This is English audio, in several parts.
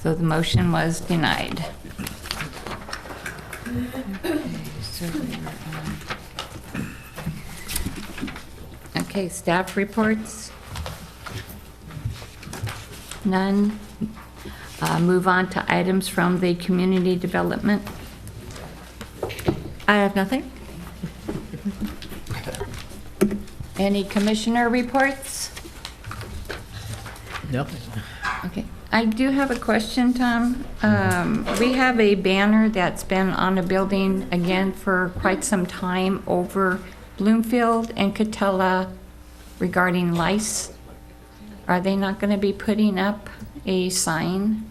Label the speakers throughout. Speaker 1: So the motion was denied. Okay, staff reports? None. Uh, Move on to items from the community development. I have nothing. Any commissioner reports? Okay, I do have a question, Tom. Um, We have a banner that's been on a building again for quite some time over Bloomfield and Catella regarding lice. Are they not going to be putting up a sign?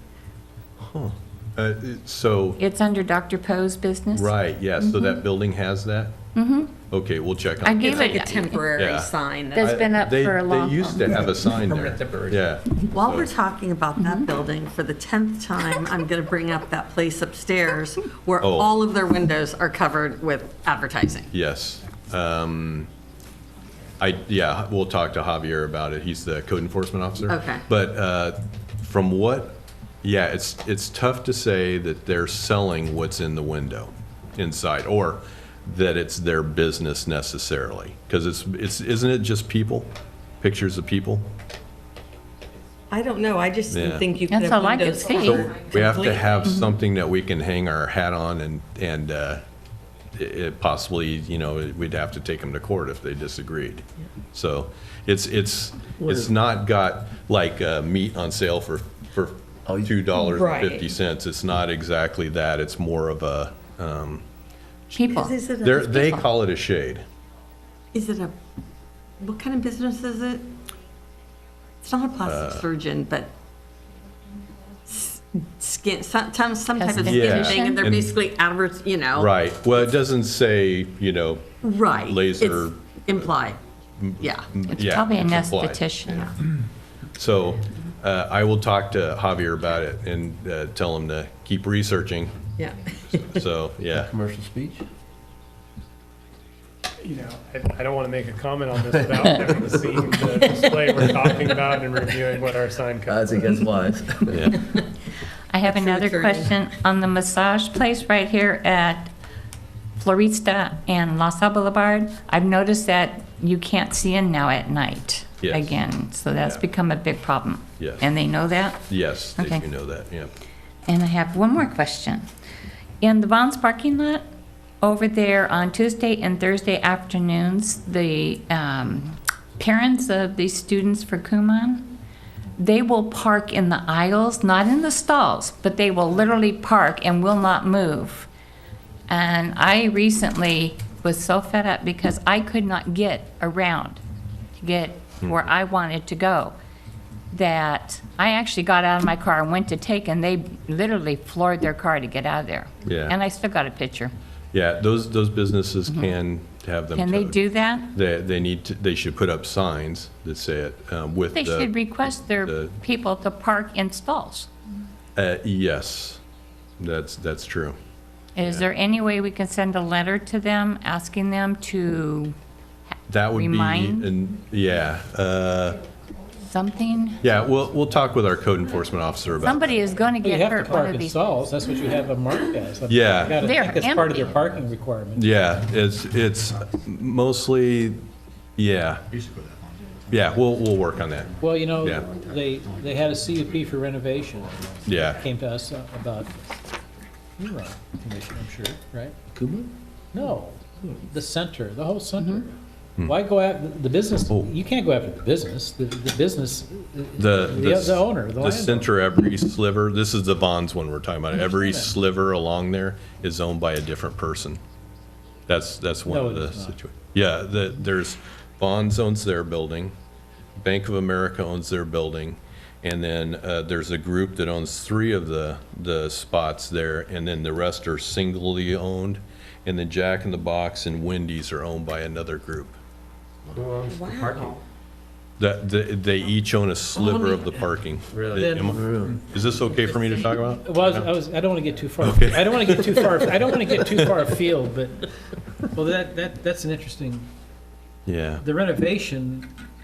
Speaker 2: Uh, it- So,
Speaker 1: It's under Dr. Poe's business?
Speaker 2: right, yeah, so that building has that? Mm-hmm. Okay, we'll check
Speaker 1: I
Speaker 2: on.
Speaker 1: gave
Speaker 3: It's like a
Speaker 1: it,
Speaker 3: temporary
Speaker 2: Yeah.
Speaker 3: sign. that-
Speaker 1: that's been up
Speaker 2: They-
Speaker 1: for a long.
Speaker 2: They used to have a sign there.
Speaker 4: Permanent temporary.
Speaker 2: Yeah,
Speaker 3: While we're talking about that building, for the 10th time, I'm going to bring up that place upstairs where
Speaker 2: Oh.
Speaker 3: all of their windows are covered with advertising.
Speaker 2: yes. Um, I, yeah, we'll talk to Javier about it. He's the code enforcement officer.
Speaker 3: Okay.
Speaker 2: But uh, from what, yeah, it's, it's tough to say that they're selling what's in the window inside, or that it's their business necessarily. Because it's, it's, isn't it just people? Pictures of people?
Speaker 3: I don't know, I just
Speaker 2: Yeah.
Speaker 3: didn't think you could
Speaker 1: That's
Speaker 3: have
Speaker 1: all I could
Speaker 3: windows.
Speaker 1: see.
Speaker 2: So we have to
Speaker 3: Completely.
Speaker 2: have
Speaker 1: Mm-hmm.
Speaker 2: something that we can hang our hat on and, and uh, i- it possibly, you know, we'd have to take them to court if they disagreed. So it's, it's, it's not got like uh, meat on sale for, for two dollars and fifty cents. It's not exactly that. It's more of a, um,
Speaker 1: People.
Speaker 3: Is it
Speaker 2: they're,
Speaker 3: a,
Speaker 2: they call it a shade.
Speaker 3: is it a, what kind of business is it? It's not a
Speaker 2: Uh,
Speaker 3: plastic surgeon, but s- skin, some, some some type of skin
Speaker 1: Cosmetician?
Speaker 3: thing, and they're
Speaker 2: And-
Speaker 3: basically advert, you know.
Speaker 2: Right. Well, it doesn't say, you know,
Speaker 3: Right.
Speaker 2: Laser-
Speaker 3: It's Implied, yeah.
Speaker 1: It's
Speaker 2: yeah,
Speaker 1: probably an
Speaker 2: implied.
Speaker 1: esthetician.
Speaker 2: So uh, I will talk to Javier about it and uh, tell him to keep researching.
Speaker 3: Yeah.
Speaker 2: So, yeah.
Speaker 4: Commercial speech?
Speaker 5: you know, I, I don't want to make a comment on this without having seen the display we're talking about and reviewing what our sign code.
Speaker 4: Odds against lies.
Speaker 2: Yeah.
Speaker 1: I have
Speaker 3: That's your
Speaker 1: another
Speaker 3: attorney.
Speaker 1: question on the massage place right here at Florista and Los Al Boulevard. I've noticed that you can't see in now at night
Speaker 2: Yes.
Speaker 1: again, so that's
Speaker 2: Yeah.
Speaker 1: become a big problem.
Speaker 2: Yes.
Speaker 1: And they know that?
Speaker 2: Yes, they
Speaker 1: Okay.
Speaker 2: do know that, yeah.
Speaker 1: And I have one more question. In the Vons parking lot, over there on Tuesday and Thursday afternoons, the um, parents of the students for Kumon, they will park in the aisles, not in the stalls, but they will literally park and will not move. And I recently was so fed up because I could not get around to get
Speaker 2: Hmm.
Speaker 1: where I wanted to go that I actually got out of my car and went to take, and they literally floored their car to get out of there.
Speaker 2: Yeah.
Speaker 1: And I still got a picture.
Speaker 2: Yeah, those, those businesses can have
Speaker 1: Mm-hmm.
Speaker 2: them.
Speaker 1: Can they
Speaker 2: towed.
Speaker 1: do that?
Speaker 2: They, they need to, they should put up signs that say it um, with
Speaker 1: They should
Speaker 2: the,
Speaker 1: request their
Speaker 2: the-
Speaker 1: people to park in stalls.
Speaker 2: uh, yes, that's, that's true.
Speaker 1: Is there any way we can send a letter to them, asking them to
Speaker 2: That would be,
Speaker 1: Remind?
Speaker 2: and, yeah, uh,
Speaker 1: something?
Speaker 2: yeah, we'll, we'll talk with our code enforcement officer about that.
Speaker 1: Somebody is going to
Speaker 6: You
Speaker 1: get
Speaker 6: have to
Speaker 1: hurt one
Speaker 6: park
Speaker 1: of
Speaker 6: in
Speaker 1: these.
Speaker 6: stalls, that's what you have them marked as. I mean,
Speaker 2: Yeah.
Speaker 6: You gotta
Speaker 1: They're
Speaker 6: think it's part of their
Speaker 1: empty.
Speaker 6: parking requirement.
Speaker 2: Yeah, it's, it's mostly, yeah. Yeah, we'll, we'll work on that,
Speaker 6: Well, you know,
Speaker 2: Yeah.
Speaker 6: they, they had a CUP for renovation,
Speaker 2: yeah.
Speaker 6: came to us about, you were on the commission, I'm sure, right? No, the center, the whole center.
Speaker 1: Mm-hmm.
Speaker 6: Why go out, the business,
Speaker 2: Hmm. Oh.
Speaker 6: you can't go after the business, the, the business,
Speaker 2: The,
Speaker 6: the the owner, the
Speaker 2: the
Speaker 6: landlord.
Speaker 2: center, every sliver, this is the bonds one we're talking about. Every sliver along there is owned by a different person. That's, that's one
Speaker 6: No,
Speaker 2: of
Speaker 6: it
Speaker 2: the
Speaker 6: is not.
Speaker 2: situa- yeah, the, there's, Bonds owns their building, Bank of America owns their building, and then, uh, there's a group that owns three of the, the spots there, and then the rest are singly owned, and then Jack in the Box and Wendy's are owned by another group.
Speaker 3: Wow.
Speaker 2: That, they, they each own a sliver of the parking.
Speaker 4: Really?
Speaker 2: Am I- Is this okay for me to talk about?
Speaker 6: Well, I was- I was, I don't want to get too far,
Speaker 2: Okay.
Speaker 6: I don't want to get too far, I don't want to get too far afield, but, well, that, that, that's an interesting
Speaker 2: Yeah,
Speaker 6: The renovation